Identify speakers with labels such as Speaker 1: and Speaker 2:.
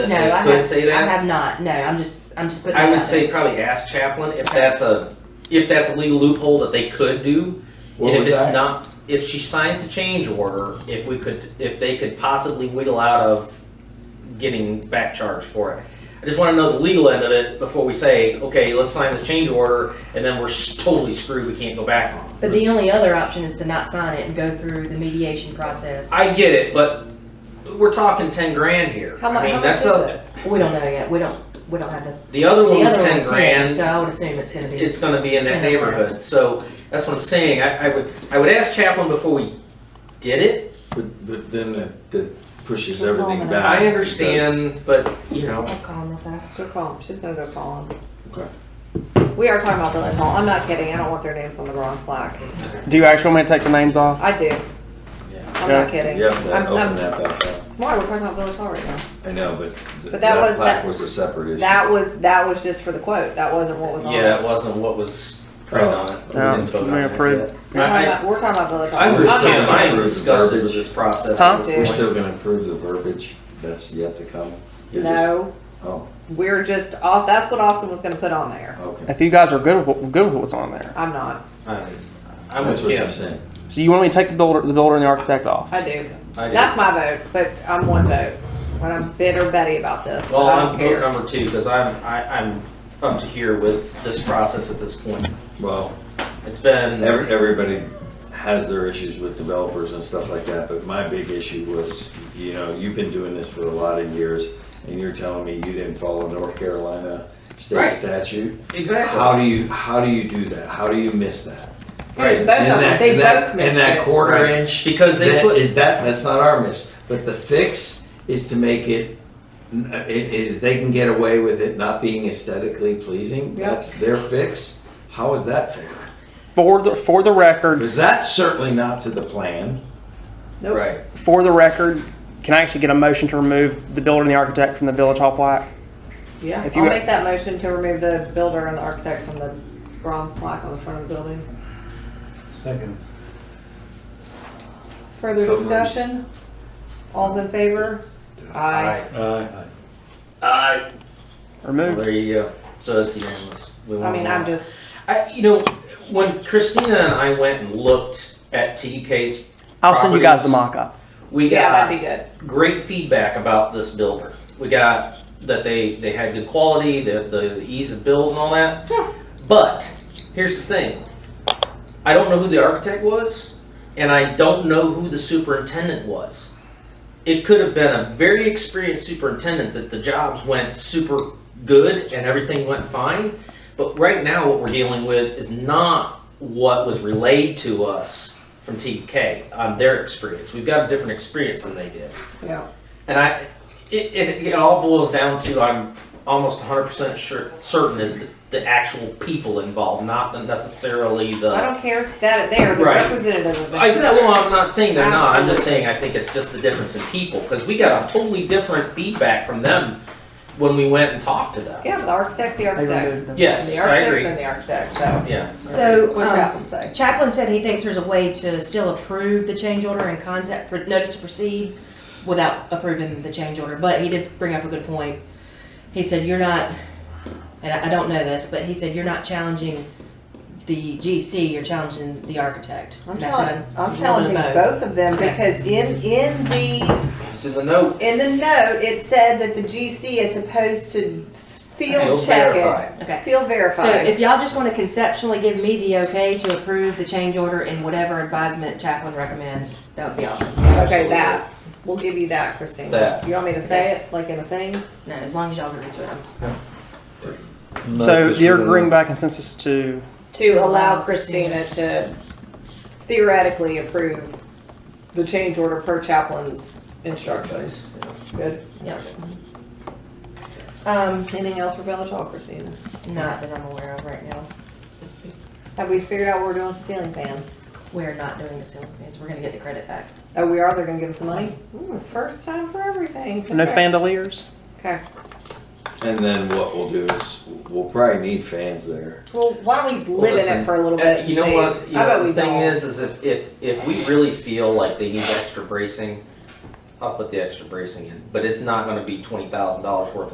Speaker 1: No, I
Speaker 2: could
Speaker 1: have,
Speaker 2: say
Speaker 1: I
Speaker 2: that?
Speaker 1: have not. No, I'm just, I'm just putting.
Speaker 2: I
Speaker 1: that
Speaker 2: would
Speaker 1: out
Speaker 2: say probably ask Chaplin if that's a, if that's a legal loophole that they could do.
Speaker 3: What
Speaker 2: and
Speaker 3: was
Speaker 2: if it's
Speaker 3: that?
Speaker 2: not, if she signs a change order, if we could, if they could possibly wiggle out of getting back charged for it. I just want to know the legal end of it before we say, okay, let's sign this change order, and then we're s- totally screwed. We can't go back on. it.
Speaker 1: there. But the only other option is to not sign it and go through the mediation process.
Speaker 2: I get it, but we're talking ten grand here.
Speaker 4: How mu-
Speaker 2: I mean,
Speaker 4: how
Speaker 2: that's
Speaker 4: much is
Speaker 2: a,
Speaker 4: it?
Speaker 1: We don't know yet. We don't, we don't have the.
Speaker 2: The other one
Speaker 1: the
Speaker 2: was
Speaker 1: other
Speaker 2: ten
Speaker 1: one's
Speaker 2: grand.
Speaker 1: So I would assume it's gonna be.
Speaker 2: it's going to be in that
Speaker 1: Ten or
Speaker 2: neighborhood.
Speaker 1: less.
Speaker 2: So that's what I'm saying. I, I would I would ask Chaplin before we did it.
Speaker 3: But, but then that, that pushes
Speaker 4: We're
Speaker 3: everything
Speaker 4: calling it
Speaker 3: back.
Speaker 2: I understand, but you know,
Speaker 1: I'll call him real fast.
Speaker 4: Go call him. She's gonna go call him.
Speaker 3: because-
Speaker 4: We are talking about Village Hall. I'm not kidding. I don't want their names on the bronze plaque.
Speaker 5: Do you actually want me to take the names off?
Speaker 4: I do.
Speaker 2: Yeah.
Speaker 4: I'm
Speaker 5: Yeah.
Speaker 4: not kidding.
Speaker 3: You have
Speaker 4: I'm,
Speaker 3: to
Speaker 4: I'm,
Speaker 3: open that back up.
Speaker 4: why we're talking about Village Hall right now?
Speaker 3: I know, but th-
Speaker 4: But that
Speaker 3: that
Speaker 4: was-
Speaker 3: plaque
Speaker 4: that-
Speaker 3: was a separate issue.
Speaker 4: That was that was just for the quote. That wasn't what was on.
Speaker 2: yeah, it
Speaker 4: it.
Speaker 2: wasn't what was printed on it. We
Speaker 5: Yeah,
Speaker 2: didn't vote
Speaker 5: Oh, we
Speaker 2: on it
Speaker 5: approved.
Speaker 2: yet.
Speaker 4: We're talking,
Speaker 2: I, I,
Speaker 4: about, we're talking about Village Hall.
Speaker 2: I understand.
Speaker 4: I'm
Speaker 2: I
Speaker 4: not-
Speaker 2: am disgusted with this process.
Speaker 5: Huh?
Speaker 2: at this
Speaker 3: We're
Speaker 2: point.
Speaker 3: still gonna approve the verbiage that's yet to come? You're just-
Speaker 4: No,
Speaker 3: Oh,
Speaker 4: we're just off. That's what Austin was gonna put on there.
Speaker 3: okay.
Speaker 5: If you guys are good with, good with what's on there,
Speaker 4: I'm not.
Speaker 2: I, I'm
Speaker 3: That's
Speaker 2: with
Speaker 3: what
Speaker 2: Kim.
Speaker 3: I'm saying.
Speaker 5: so you want me to take the builder, the builder and the architect off?
Speaker 4: I do.
Speaker 2: I do.
Speaker 4: That's my vote, but I'm one vote. When I'm bitter Betty about this,
Speaker 2: Well,
Speaker 4: I don't
Speaker 2: I'm vote
Speaker 4: care.
Speaker 2: number two because I'm I, I'm up to here with this process at this point.
Speaker 3: Well,
Speaker 2: It's been
Speaker 3: every, everybody has their issues with developers and stuff like that, but my big issue was, you know, you've been doing this for a lot of years, and you're telling me you didn't follow North Carolina state
Speaker 2: Right.
Speaker 3: statute?
Speaker 2: exactly.
Speaker 3: How do you, how do you do that? How do you miss that?
Speaker 4: It was both
Speaker 3: And
Speaker 4: of them.
Speaker 3: that-
Speaker 4: They
Speaker 3: and that-
Speaker 4: both missed
Speaker 3: And that
Speaker 4: it.
Speaker 3: quarter
Speaker 2: Right.
Speaker 3: inch.
Speaker 2: Because they
Speaker 3: that
Speaker 2: put-
Speaker 3: Is that, that's not our miss, but the fix is to make it, n- i- i- if they can get away with it not being aesthetically pleasing,
Speaker 4: Yep.
Speaker 3: that's their fix. How is that fair?
Speaker 5: For the, for the record,
Speaker 3: Because that's certainly not to the plan.
Speaker 4: Nope.
Speaker 2: Right.
Speaker 5: for the record, can I actually get a motion to remove the builder and the architect from the village hall plaque?
Speaker 4: Yeah,
Speaker 5: If
Speaker 4: I'll
Speaker 5: you-
Speaker 4: make that motion to remove the builder and the architect from the bronze plaque on the front of the building.
Speaker 6: Second.
Speaker 4: Further
Speaker 3: So moved.
Speaker 4: discussion? All's in favor? Aye.
Speaker 6: Aye.
Speaker 2: Well,
Speaker 5: Removed?
Speaker 2: there you go. So it's unanimous. We
Speaker 4: I
Speaker 2: won
Speaker 4: mean,
Speaker 2: one.
Speaker 4: I'm just,
Speaker 2: I, you know, when Christina and I went and looked at TDK's,
Speaker 5: I'll send you guys the
Speaker 2: Properties.
Speaker 5: mock-up.
Speaker 2: we
Speaker 4: yeah,
Speaker 2: got
Speaker 4: that'd be good.
Speaker 2: great feedback about this builder. We got that they, they had good quality, the, the ease of build and all that. But here's the thing I don't know who the architect was, and I don't know who the superintendent was. It could have been a very experienced superintendent that the jobs went super good and everything went fine. But right now, what we're dealing with is not what was relayed to us from TK on their experience. We've got a different experience than they did.
Speaker 4: Yeah.
Speaker 2: And I, it, it, it all boils down to I'm almost 100% sure, certain is the, the actual people involved, not the- necessarily the.
Speaker 4: I don't care that they're the
Speaker 2: Right.
Speaker 4: representative of
Speaker 2: I,
Speaker 4: it.
Speaker 2: well, I'm not saying they're not. I'm just saying I think it's just the difference in people because we got a totally different feedback from them when we went and talked to them.
Speaker 4: Yeah, the architect's the
Speaker 5: They
Speaker 4: architect.
Speaker 5: removed them.
Speaker 4: And
Speaker 2: Yes,
Speaker 4: the
Speaker 2: I
Speaker 4: architect's
Speaker 2: agree.
Speaker 4: been the architect, so.
Speaker 2: Yeah.
Speaker 1: So,
Speaker 4: What's
Speaker 1: um,
Speaker 4: that one say?
Speaker 1: Chaplin said he thinks there's a way to still approve the change order and concept for notice to proceed without approving the change order, but he did bring up a good point. He said, you're not, and I I don't know this, but he said, you're not challenging the GC, you're challenging the architect.
Speaker 4: I'm
Speaker 1: And that's what
Speaker 4: challenging, I'm
Speaker 1: we're gonna
Speaker 4: challenging
Speaker 1: vote.
Speaker 4: both of them
Speaker 1: Okay.
Speaker 4: because in, in the
Speaker 2: It's in the note.
Speaker 4: In the note, it said that the GC is supposed to
Speaker 2: It'll
Speaker 4: field check
Speaker 2: verify.
Speaker 4: it.
Speaker 1: Okay. So if
Speaker 4: Field verified.
Speaker 1: y'all just want to conceptually give me the okay to approve the change order and whatever advisement Chaplin recommends, that would be awesome.
Speaker 4: Okay, that, we'll give you that, Christine.
Speaker 2: That.
Speaker 4: You want me to say it, like in a thing?
Speaker 1: No, as long as y'all agree to it. I'm-
Speaker 5: So you're agreeing by consensus to,
Speaker 4: To allow Christina to theoretically approve the change order per chaplain's instructions. Good.
Speaker 1: Yep. Um,
Speaker 4: Anything else for Village Hall, Christina?
Speaker 1: not that I'm aware of right now.
Speaker 4: Have we figured out what we're doing with the ceiling fans?
Speaker 1: We're not doing the ceiling fans. We're gonna get the credit back.
Speaker 4: Oh, we are, they're gonna give us the money? Ooh, first time for everything.
Speaker 5: no
Speaker 4: Okay.
Speaker 5: fandeliers?
Speaker 4: Okay.
Speaker 3: And then what we'll do is, we'll probably need fans there.
Speaker 4: Well, why don't we live in
Speaker 2: listen,
Speaker 4: it for a little
Speaker 2: Uh,
Speaker 4: bit?
Speaker 2: You know
Speaker 4: and see?
Speaker 2: what? You
Speaker 4: I bet
Speaker 2: know,
Speaker 4: we
Speaker 2: the thing
Speaker 4: don't.
Speaker 2: is, is if, if, if we really feel like they need extra bracing, I'll put the extra bracing in, but it's not gonna be twenty thousand dollars worth of